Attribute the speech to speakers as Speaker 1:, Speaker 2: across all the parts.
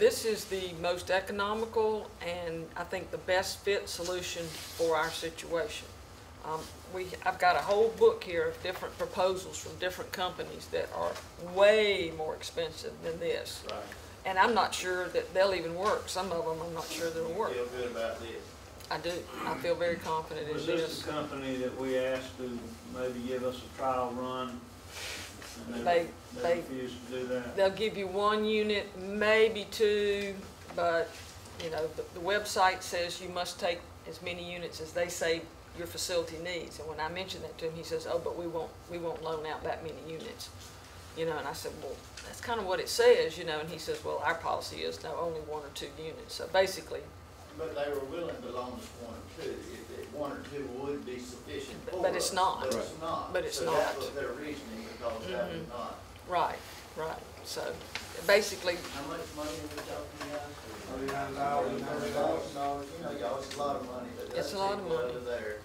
Speaker 1: is the most economical and I think the best fit solution for our situation. Um, we, I've got a whole book here of different proposals from different companies that are way more expensive than this.
Speaker 2: Right.
Speaker 1: And I'm not sure that they'll even work. Some of them, I'm not sure they'll work.
Speaker 2: Feel good about this.
Speaker 1: I do. I feel very confident in
Speaker 2: Was this
Speaker 1: this.
Speaker 2: the company that we asked to maybe give us a trial run? and
Speaker 1: They-
Speaker 2: They
Speaker 1: they-
Speaker 2: refused to do that?
Speaker 1: They'll give you one unit, maybe two, but, you know, the, the website says you must take as many units as they say your facility needs. And when I mentioned that to him, he says, oh, but we won't, we won't loan out that many units. You know, and I said, well, that's kind of what it says, you know, and he says, well, our policy is no, only one or two units. So basically,
Speaker 3: But they were willing to loan us one or two, if, if one or two would be sufficient
Speaker 1: But-
Speaker 3: for us.
Speaker 1: but it's not.
Speaker 3: But it's not.
Speaker 1: But it's
Speaker 3: So that
Speaker 1: not. Mm-hmm.
Speaker 3: was their reasoning, because that was not,
Speaker 1: right, right. So basically,
Speaker 3: how much money are we talking about?
Speaker 4: Thirty-nine thousand, ninety thousand dollars.
Speaker 3: You know, y'all, it's a lot of money, but
Speaker 1: It's
Speaker 3: those
Speaker 1: a lot of
Speaker 3: people
Speaker 1: money.
Speaker 3: over there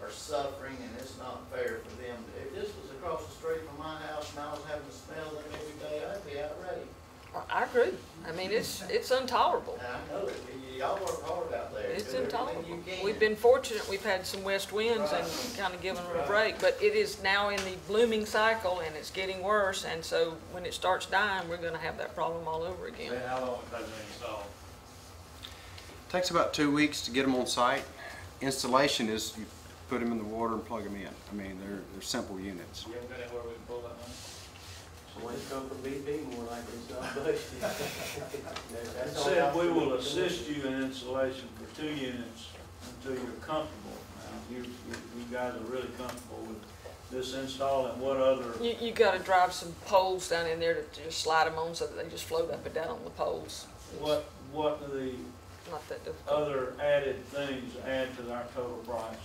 Speaker 3: are suffering, and it's not fair for them. If this was across the street from my house, and I was having to smell them every day, I'd be outraged.
Speaker 1: I- I agree. I mean, it's, it's intolerable.
Speaker 3: And I know it, Y- y'all work hard out there.
Speaker 1: It's
Speaker 3: Do everything
Speaker 1: intolerable.
Speaker 3: you can.
Speaker 1: We've been fortunate, we've had some west winds and
Speaker 3: Right.
Speaker 1: kind of given them a
Speaker 3: Right.
Speaker 1: break, but it is now in the blooming cycle and it's getting worse, and so when it starts dying, we're gonna have that problem all over again.
Speaker 2: Say, How long it takes to install?
Speaker 5: Takes about two weeks to get them on site. Installation is you put them in the water and plug them in. I mean, they're, they're simple units.
Speaker 2: You ever got anywhere we can pull that money?
Speaker 6: One come from BP more like it's not budgeted.
Speaker 2: It
Speaker 6: That's all
Speaker 2: said,
Speaker 6: I-
Speaker 2: we will assist you in installation for two units until you're comfortable. Now, you, you you guys are really comfortable with this install and what other,
Speaker 1: You, you gotta drive some poles down in there to just slide them on so that they just float up and down on the poles.
Speaker 2: what, what are the
Speaker 1: Not that difficult.
Speaker 2: other added things add to our total price?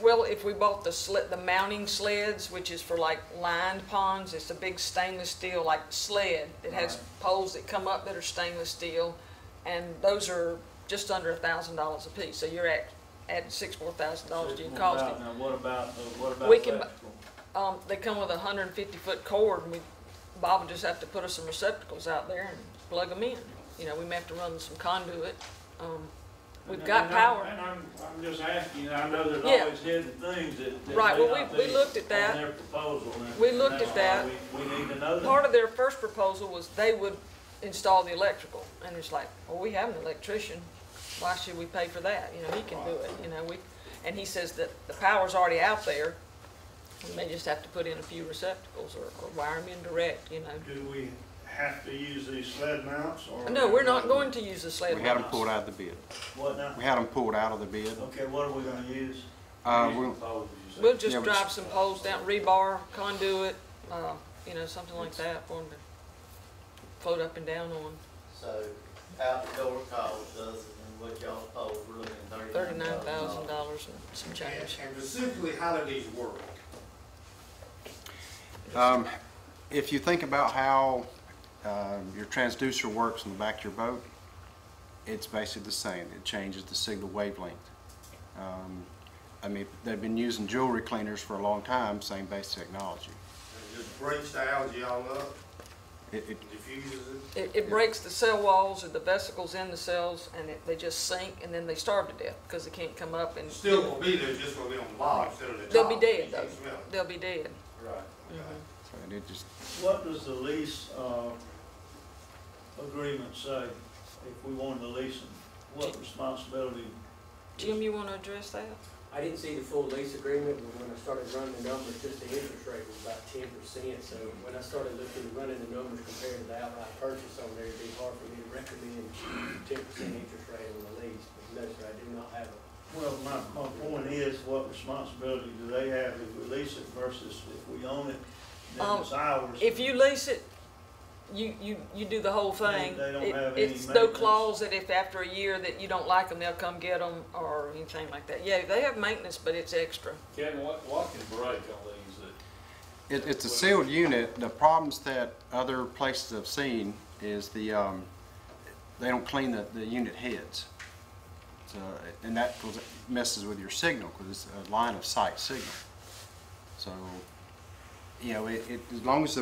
Speaker 1: Well, if we bought the sled, the mounting sleds, which is for like lined ponds, it's a big stainless steel like sled. It has poles that come up that are stainless steel, and those are just under a thousand dollars a piece. So you're at, at six more thousand dollars to your cost.
Speaker 2: $64,000. Now, what about, uh, what about
Speaker 1: We can bu-
Speaker 2: electrical?
Speaker 1: Um, they come with a hundred and fifty foot cord, and we, Bob would just have to put us some receptacles out there and plug them in. You know, we may have to run some conduit. Um, we've
Speaker 2: And-
Speaker 1: got
Speaker 2: and I'm-
Speaker 1: power.
Speaker 2: And I'm, I'm just asking, you know, I know there's
Speaker 1: Yeah.
Speaker 2: always hidden things that. that
Speaker 1: Right,
Speaker 2: may
Speaker 1: well,
Speaker 2: not
Speaker 1: we- we
Speaker 2: be
Speaker 1: looked at
Speaker 2: on
Speaker 1: that.
Speaker 2: their proposal, and-
Speaker 1: We
Speaker 2: and
Speaker 1: looked
Speaker 2: that's
Speaker 1: at
Speaker 2: why
Speaker 1: that.
Speaker 2: We, we need to know
Speaker 1: Part
Speaker 2: that.
Speaker 1: of their first proposal was they would install the electrical, and it's like, well, we have an electrician, why should we pay for that? You know, he can do it, you know, we, and he says that the power's already out there, we may just have to put in a few receptacles or, or wire them in direct, you know.
Speaker 2: Do we have to use these sled mounts or?
Speaker 1: No, we're not going to use the sled.
Speaker 5: We had them pulled out of the bid.
Speaker 2: What now?
Speaker 5: We had them pulled out of the bid.
Speaker 2: Okay, what are we gonna use?
Speaker 5: Uh,
Speaker 2: Use
Speaker 5: we'll-
Speaker 2: the poles, you said.
Speaker 1: We'll
Speaker 5: Yeah,
Speaker 1: just
Speaker 5: we-
Speaker 1: drive some poles down, rebar, conduit, uh, you know, something like that for them to float up and down on.
Speaker 3: So outdoor cost other than what y'all told, we're looking at
Speaker 1: Thirty-nine
Speaker 3: thirty-nine
Speaker 1: thousand
Speaker 3: thousand dollars.
Speaker 1: dollars and some change.
Speaker 4: And specifically, how do these work?
Speaker 5: Um, If you think about how um, your transducer works in the back of your boat, it's basically the same. It changes the signal wavelength. Um, I mean, they've been using jewelry cleaners for a long time, same basic technology.
Speaker 4: It just breaks the algae all up,
Speaker 5: It, it
Speaker 4: diffuses it.
Speaker 1: It, it breaks the cell walls or the vesicles in the cells, and it, they just sink, and then they starve to death because they can't come up, and
Speaker 4: It's Still gonna be there, it's just gonna be on the bottom instead of the top.
Speaker 1: They'll be dead,
Speaker 4: You can
Speaker 1: though. Mm-hmm.
Speaker 4: smell it.
Speaker 1: they'll be dead.
Speaker 4: Right.
Speaker 5: and it just
Speaker 2: What does the lease, uh, agreement say if we wanted to lease them? What responsibility?
Speaker 1: Jim, you want to address that?
Speaker 6: I didn't see the full lease agreement, but when I started running the numbers, just the interest rate was about ten percent. So when I started looking, running the numbers compared to the outright purchase on there, it'd be hard for me to recommend ten percent interest rate on the lease. But no, sir, I do not have a,
Speaker 2: Well, my, my point is, what responsibility do they have if we lease it versus if we own it? Then
Speaker 1: Um,
Speaker 2: it's ours.
Speaker 1: If you lease it, you, you, you do the whole thing.
Speaker 2: They don't
Speaker 1: It-
Speaker 2: have any
Speaker 1: It's no
Speaker 2: maintenance.
Speaker 1: clause that if after a year that you don't like them, they'll come get them or anything like that. Yeah, they have maintenance, but it's extra.
Speaker 7: Kevin, what, what can break on these that,
Speaker 5: It, it's a sealed unit. The problems that other places have seen is the, um, they don't clean the, the unit heads. So, and that goes- messes with your signal, because it's a line of sight signal. So, you know, it, it, as long as the